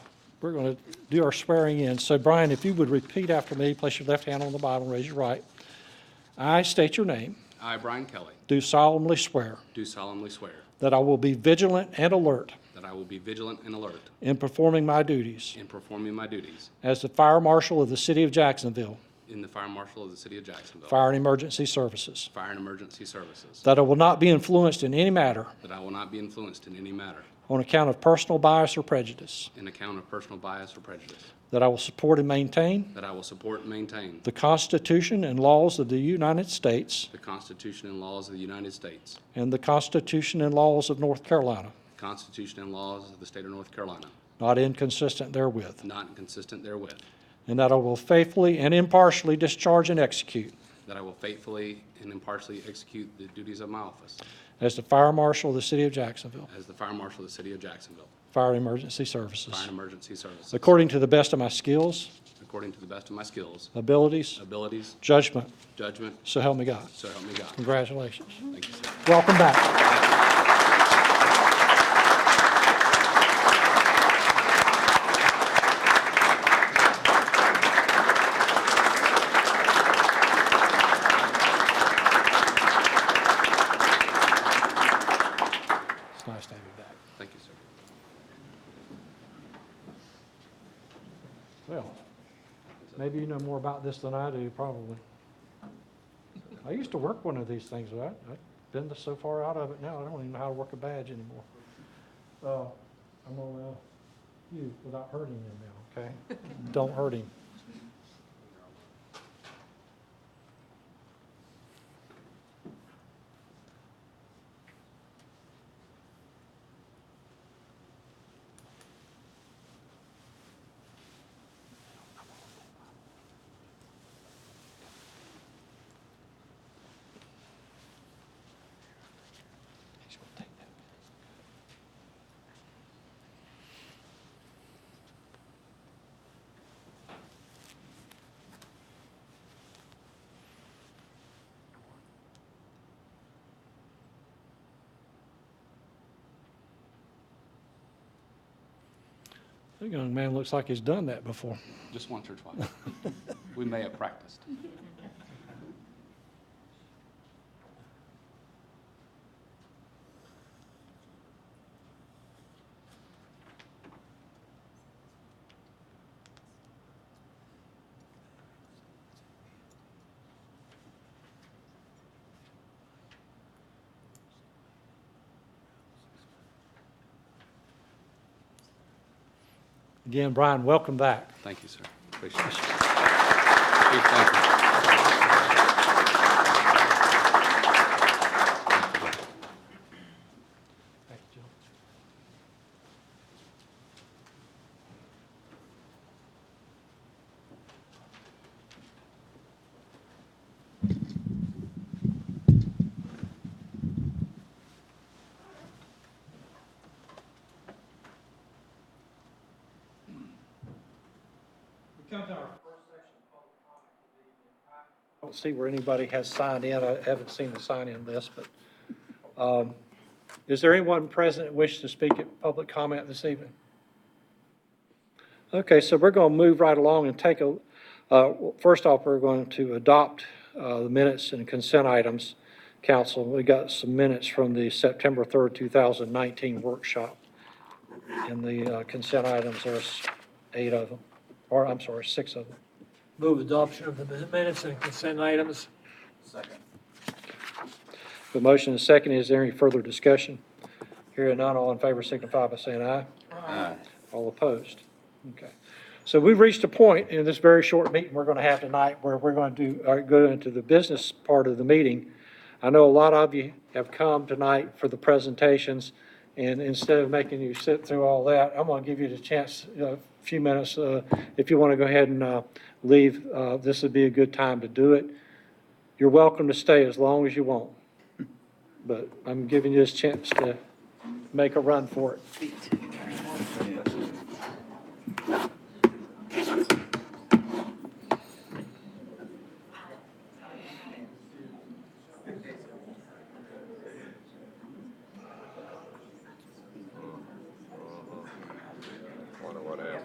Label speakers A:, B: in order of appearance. A: We're going to do our swearing in. So Brian, if you would repeat after me, place your left hand on the Bible, and raise your right. I state your name,
B: I, Brian Kelly,
A: do solemnly swear
B: do solemnly swear
A: that I will be vigilant and alert
B: that I will be vigilant and alert
A: in performing my duties
B: in performing my duties
A: as the Fire Marshal of the City of Jacksonville,
B: in the Fire Marshal of the City of Jacksonville,
A: Fire and Emergency Services,
B: Fire and Emergency Services,
A: that I will not be influenced in any matter
B: that I will not be influenced in any matter
A: on account of personal bias or prejudice,
B: in account of personal bias or prejudice,
A: that I will support and maintain
B: that I will support and maintain
A: the Constitution and laws of the United States
B: the Constitution and laws of the United States,
A: and the Constitution and laws of North Carolina,
B: the Constitution and laws of the State of North Carolina,
A: not inconsistent therewith,
B: not inconsistent therewith,
A: and that I will faithfully and impartially discharge and execute
B: that I will faithfully and impartially execute the duties of my office
A: as the Fire Marshal of the City of Jacksonville,
B: as the Fire Marshal of the City of Jacksonville,
A: Fire Emergency
B: Fire
A: Services,
B: and Emergency Services,
A: according to the best of my skills,
B: according to the best of my skills,
A: abilities,
B: abilities,
A: judgment,
B: judgment,
A: so help me God.
B: So help me God.
A: Congratulations.
B: Thank you, sir.
A: Welcome back. It's nice to have you back.
B: Thank you, sir.
A: Well, maybe you know more about this than I do, probably. I used to work one of these things, but I- I've been so far out of it now, I don't even know how to work a badge anymore. Uh, I'm gonna allow you without hurting him now, okay? Don't hurt him. He's gonna take that. That young man looks like he's done that before.
B: Just once or twice. We may have practiced.
A: Again, Brian, welcome back.
B: Thank you, sir. Appreciate it. Chief, thank you.
A: Thank you, Jill. I don't see where anybody has signed in. I haven't seen the sign-in list, but um, is there anyone present that wishes to speak at public comment this evening? Okay, so we're going to move right along and take a, uh, first off, we're going to adopt uh, the minutes and consent items, council. We got some minutes from the September 3rd, 2019 workshop. And the uh, consent items, there's eight of them, or I'm sorry, six of them.
C: Move adoption of the minutes and consent items.
A: The motion is second. Is there any further discussion? Hearing none, all in favor signify by saying aye. Aye. All opposed? Okay. So we've reached a point in this very short meeting we're going to have tonight where we're going to do, uh, go into the business part of the meeting. I know a lot of you have come tonight for the presentations, and instead of making you sit through all that, I'm going to give you the chance, uh, a few minutes, uh, if you want to go ahead and uh, leave, uh, this would be a good time to do it. You're welcome to stay as long as you want but I'm giving you this chance to make a run for it.
D: feet.